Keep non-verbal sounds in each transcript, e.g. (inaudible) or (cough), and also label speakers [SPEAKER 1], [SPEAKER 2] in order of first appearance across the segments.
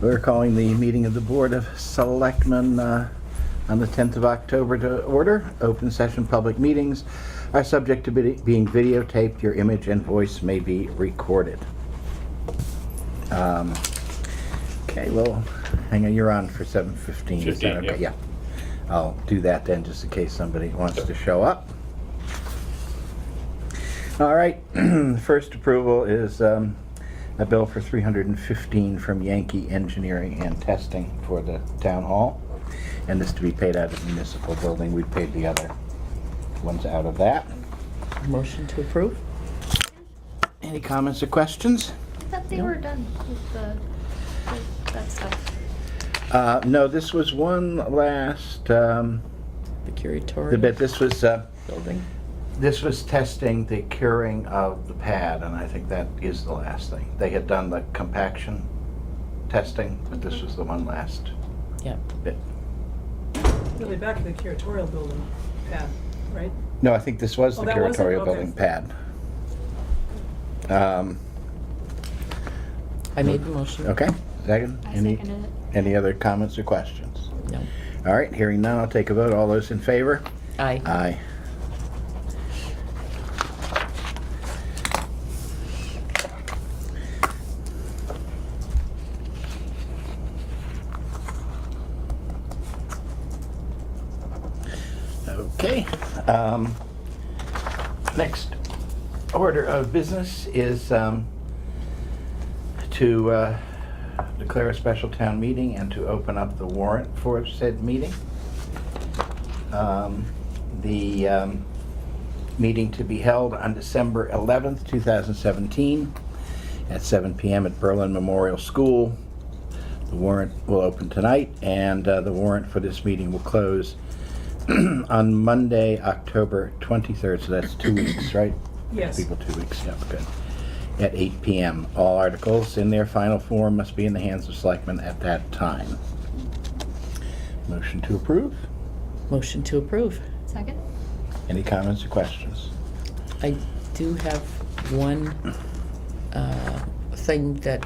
[SPEAKER 1] We're calling the meeting of the Board of Selectmen uh, on the 10th of October to order. Open session public meetings are subject to be- being videotaped. Your image and voice may be recorded. Um, Okay, well, hang on, you're on for 7:15. Is that
[SPEAKER 2] 15,
[SPEAKER 1] okay?
[SPEAKER 2] yeah.
[SPEAKER 1] Yeah. I'll do that then, just in case somebody wants to show up. All right, (clears throat) first approval is um, a bill for 315 from Yankee Engineering and Testing for the town hall, and this to be paid out of the municipal building. We paid the other ones out of that.
[SPEAKER 3] Motion to approve?
[SPEAKER 1] Any comments or questions?
[SPEAKER 4] I thought they were done with the, with that stuff.
[SPEAKER 1] Uh, No, this was one last, um,
[SPEAKER 3] The curatorial?
[SPEAKER 1] the bit, this was, uh,
[SPEAKER 3] Building?
[SPEAKER 1] this was testing the curing of the pad, and I think that is the last thing. They had done the compaction testing, but this was the one last
[SPEAKER 3] Yep.
[SPEAKER 1] bit.
[SPEAKER 5] Really back to the curatorial building pad, right?
[SPEAKER 1] No, I think this was
[SPEAKER 5] Oh,
[SPEAKER 1] the
[SPEAKER 5] that was it?
[SPEAKER 1] curatorial
[SPEAKER 5] Okay.
[SPEAKER 1] building pad. Um,
[SPEAKER 3] I made the motion.
[SPEAKER 1] Okay, second?
[SPEAKER 4] I
[SPEAKER 1] Any-
[SPEAKER 4] seconded it.
[SPEAKER 1] Any other comments or questions?
[SPEAKER 3] No.
[SPEAKER 1] All right, hearing none, I'll take a vote. All those in favor?
[SPEAKER 3] Aye.
[SPEAKER 1] Aye. Okay. um, Next order of business is um, to uh, declare a special town meeting and to open up the warrant for said meeting. Um, The um, meeting to be held on December 11th, 2017, at 7 PM at Berlin Memorial School. The warrant will open tonight, and uh, the warrant for this meeting will close (clears throat) on Monday, October 23rd, so that's two weeks, right?
[SPEAKER 5] Yes.
[SPEAKER 1] People, two weeks, yeah, good. At 8 PM. All articles in their final form must be in the hands of selectmen at that time. Motion to approve?
[SPEAKER 3] Motion to approve.
[SPEAKER 4] Second?
[SPEAKER 1] Any comments or questions?
[SPEAKER 3] I do have one uh, thing that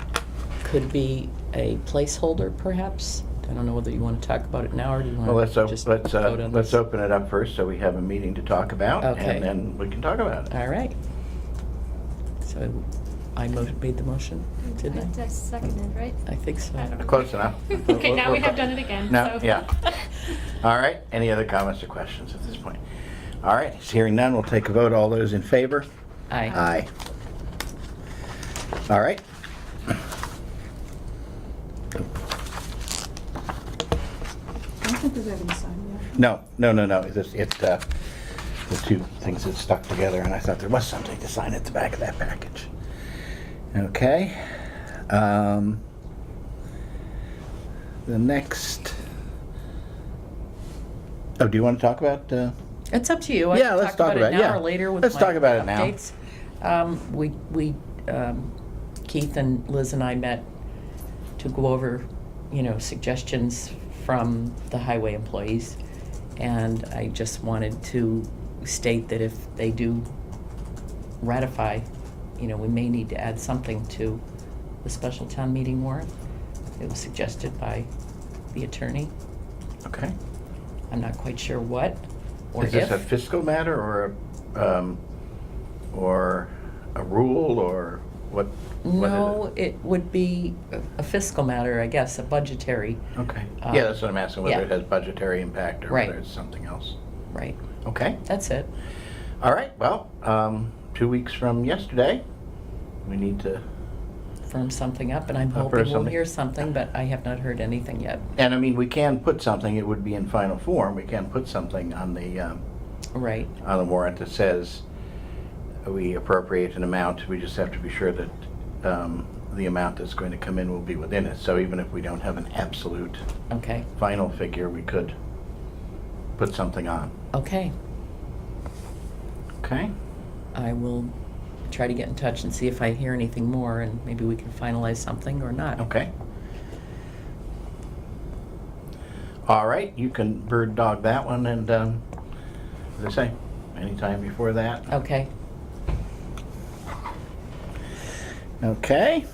[SPEAKER 3] could be a placeholder, perhaps. I don't know whether you want to talk about it now, or do you
[SPEAKER 1] Well,
[SPEAKER 3] want
[SPEAKER 1] let's,
[SPEAKER 3] to
[SPEAKER 1] op-
[SPEAKER 3] just vote
[SPEAKER 1] let's, uh,
[SPEAKER 3] on
[SPEAKER 1] let's
[SPEAKER 3] this?
[SPEAKER 1] open it up first, so we have a meeting to talk about,
[SPEAKER 3] Okay.
[SPEAKER 1] and then we can talk about it.
[SPEAKER 3] All right. So I mo- made the motion, didn't I?
[SPEAKER 4] I seconded, right?
[SPEAKER 1] (laughs)
[SPEAKER 3] I think
[SPEAKER 4] I don't
[SPEAKER 3] so.
[SPEAKER 4] know.
[SPEAKER 1] Close enough. (laughs)
[SPEAKER 4] (laughs) Okay, now we have done it again,
[SPEAKER 1] Now,
[SPEAKER 4] so. (laughs)
[SPEAKER 1] yeah. All right, any other comments or questions at this point? All right, hearing none, we'll take a vote. All those in favor?
[SPEAKER 3] Aye.
[SPEAKER 1] Aye. All right.
[SPEAKER 5] I don't think we've ever signed yet.
[SPEAKER 1] No, no, no, no, it's, it's, uh, the two things that stuck together, and I thought there was something to sign at the back of that package. Okay. um, The next, oh, do you want to talk about, uh,
[SPEAKER 3] It's up to you. I
[SPEAKER 1] Yeah,
[SPEAKER 3] can
[SPEAKER 1] let's talk about it,
[SPEAKER 3] it now
[SPEAKER 1] yeah.
[SPEAKER 3] or later with
[SPEAKER 1] Let's
[SPEAKER 3] my
[SPEAKER 1] talk about it now.
[SPEAKER 3] updates. Um, we we um, Keith and Liz and I met to go over, you know, suggestions from the highway employees, and I just wanted to state that if they do ratify, you know, we may need to add something to the special town meeting warrant. It was suggested by the attorney.
[SPEAKER 1] okay.
[SPEAKER 3] I'm not quite sure what or
[SPEAKER 1] Is
[SPEAKER 3] if.
[SPEAKER 1] this a fiscal matter or, a, um, or a rule or what? what is it?
[SPEAKER 3] No, it would be a- a fiscal matter, I guess, a budgetary,
[SPEAKER 1] Okay,
[SPEAKER 3] Uh,
[SPEAKER 1] yeah, that's what I'm asking, whether
[SPEAKER 3] yeah.
[SPEAKER 1] it has budgetary impact or
[SPEAKER 3] Right.
[SPEAKER 1] whether it's something else.
[SPEAKER 3] right,
[SPEAKER 1] Okay.
[SPEAKER 3] that's it.
[SPEAKER 1] All right, well, um, two weeks from yesterday, we need to,
[SPEAKER 3] Firm something up, and I'm
[SPEAKER 1] Up or
[SPEAKER 3] hoping we'll
[SPEAKER 1] something.
[SPEAKER 3] hear something, but I have not heard anything yet.
[SPEAKER 1] and I mean, we can put something, it would be in final form, we can put something on the, um,
[SPEAKER 3] Right,
[SPEAKER 1] on the warrant that says we appropriate an amount, we just have to be sure that, um, the amount that's going to come in will be within it. So even if we don't have an absolute
[SPEAKER 3] okay,
[SPEAKER 1] final figure, we could put something on,
[SPEAKER 3] okay.
[SPEAKER 1] okay?
[SPEAKER 3] I will try to get in touch and see if I hear anything more, and maybe we can finalize something or not.
[SPEAKER 1] Okay. All right, you can bird dog that one and, um, as I say, anytime before that.
[SPEAKER 3] Okay,
[SPEAKER 1] Okay.